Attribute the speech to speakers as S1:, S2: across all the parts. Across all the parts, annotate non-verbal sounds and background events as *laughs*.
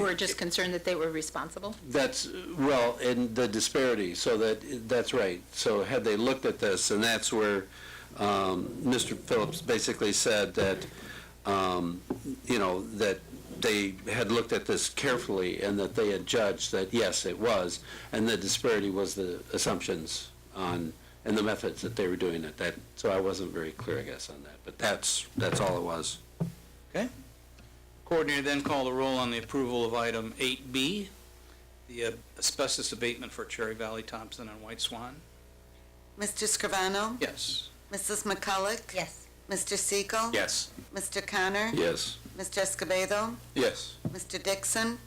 S1: were just concerned that they were responsible?
S2: That's, well, and the disparity, so that, that's right. So had they looked at this, and that's where um, Mr. Phillips basically said that, um, you know, that they had looked at this carefully and that they had judged that, yes, it was, and the disparity was the assumptions on, and the methods that they were doing it. That, so I wasn't very clear, I guess, on that, but that's, that's all it was.
S3: Coordinator then called the roll on the approval of item 8B, the uh, asbestos abatement for Cherry Valley, Thompson, and White Swan.
S4: Mr. Scrivano?
S3: Yes.
S4: Mrs. McCulloch?
S5: Yes.
S4: Mr. Siegel?
S2: Yes.
S4: Mr. Connor?
S2: Yes.
S4: Mr. Escobedo?
S2: Yes.
S4: Mr. Dixon?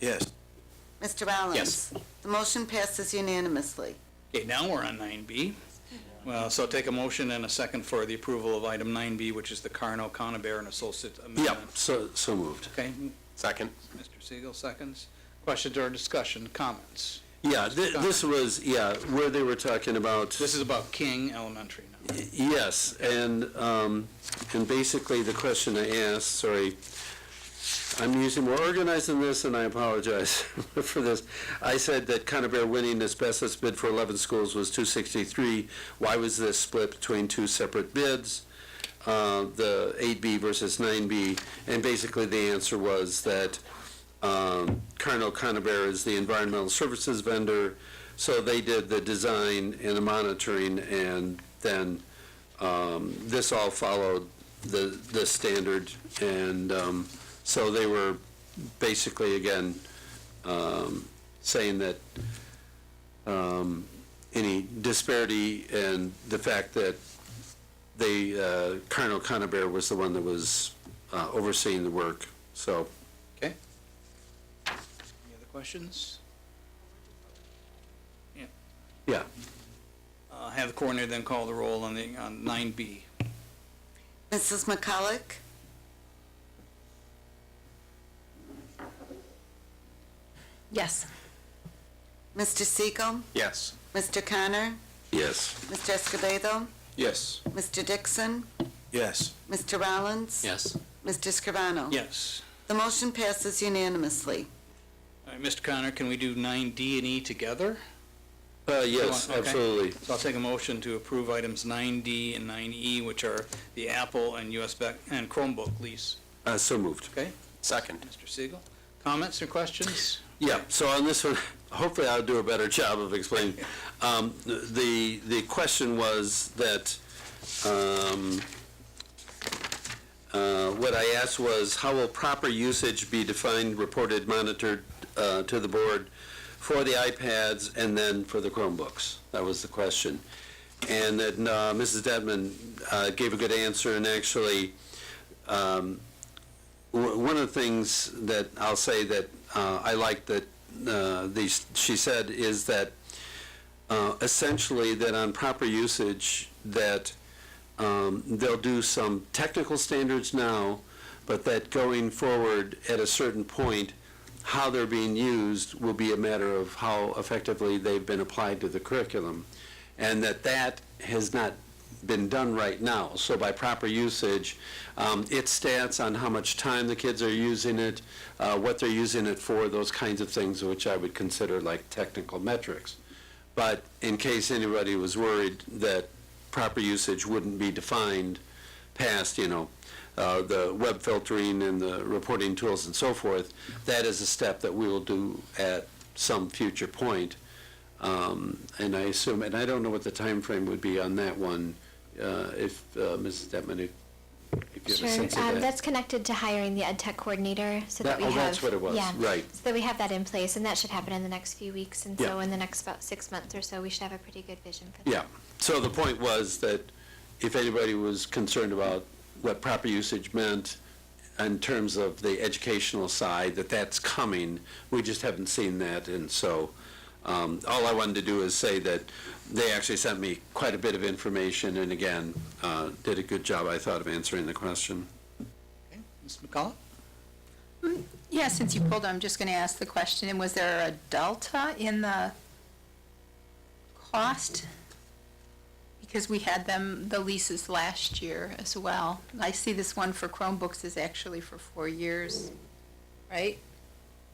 S2: Yes.
S4: Mr. Rollins?
S3: Yes.
S4: The motion passes unanimously.
S3: Okay, now we're on 9B. Well, so take a motion and a second for the approval of item 9B, which is the Carno, Conover, and Associate
S2: Yep,
S3: Amendment.
S2: so, so moved.
S3: Okay,
S6: Second.
S3: Mr. Siegel, seconds. Questions or discussion, comments?
S2: Yeah, thi- this was, yeah, where they were talking about,
S3: This is about King Elementary now.
S2: yes, and, um, and basically the question I asked, sorry, I'm using more organized than this, and I apologize *laughs* for this. I said that Conover winning asbestos bid for 11 schools was 263. Why was this split between two separate bids, uh, the 8B versus 9B? And basically, the answer was that um, Carno Conover is the environmental services vendor, so they did the design and the monitoring, and then um, this all followed the, the standard, and um, so they were basically, again, um, saying that um, any disparity and the fact that they, uh, Colonel Conover was the one that was uh, overseeing the work, so,
S3: Okay? Any other questions?
S2: yeah.
S3: Uh, Have the coordinator then call the roll on the, on 9B.
S4: Mrs. McCulloch?
S1: Yes.
S4: Mr. Siegel?
S6: Yes.
S4: Mr. Connor?
S2: Yes.
S4: Mr. Escobedo?
S6: Yes.
S4: Mr. Dixon?
S6: Yes.
S4: Mr. Rollins?
S2: Yes.
S4: Mr. Scrivano?
S3: Yes.
S4: The motion passes unanimously.
S3: All right, Mr. Connor, can we do 9D and E together?
S2: Uh, yes,
S3: Okay.
S2: absolutely.
S3: So I'll take a motion to approve items 9D and 9E, which are the Apple and US Bec- and Chromebook lease.
S2: Uh, So moved.
S3: Okay,
S6: Second.
S3: Mr. Siegel, comments or questions?
S2: Yeah, so on this one, hopefully I'll do a better job of explaining. Um, The, the question was that, um, uh, what I asked was, how will proper usage be defined, reported, monitored uh, to the board for the iPads and then for the Chromebooks? That was the question. And then uh, Mrs. Dedman uh, gave a good answer, and actually, um, w- one of the things that I'll say that uh, I like that uh, these, she said is that uh, essentially that on proper usage that um, they'll do some technical standards now, but that going forward at a certain point, how they're being used will be a matter of how effectively they've been applied to the curriculum, and that that has not been done right now. So by proper usage, um, it stats on how much time the kids are using it, uh, what they're using it for, those kinds of things, which I would consider like technical metrics. But in case anybody was worried that proper usage wouldn't be defined past, you know, uh, the web filtering and the reporting tools and so forth, that is a step that we will do at some future point. Um, And I assume, and I don't know what the time frame would be on that one, uh, if, uh, Mrs. Detman, if if you have
S7: Sure,
S2: a sense
S7: um,
S2: of that.
S7: that's connected to hiring the ed tech coordinator, so
S2: That-
S7: that we
S2: oh,
S7: have.
S2: that's what it was,
S7: yeah,
S2: right.
S7: So that we have that in place, and that should happen in the next few weeks, and so
S2: Yeah.
S7: in the next about six months or so, we should have a pretty good vision for that.
S2: Yeah, so the point was that if anybody was concerned about what proper usage meant in terms of the educational side, that that's coming, we just haven't seen that, and so, um, all I wanted to do is say that they actually sent me quite a bit of information, and again, uh, did a good job, I thought, of answering the question.
S3: Ms. McCullough?
S1: Yeah, since you pulled, I'm just going to ask the question, and was there a delta in the cost? Because we had them, the leases last year as well. I see this one for Chromebooks is actually for four years, right?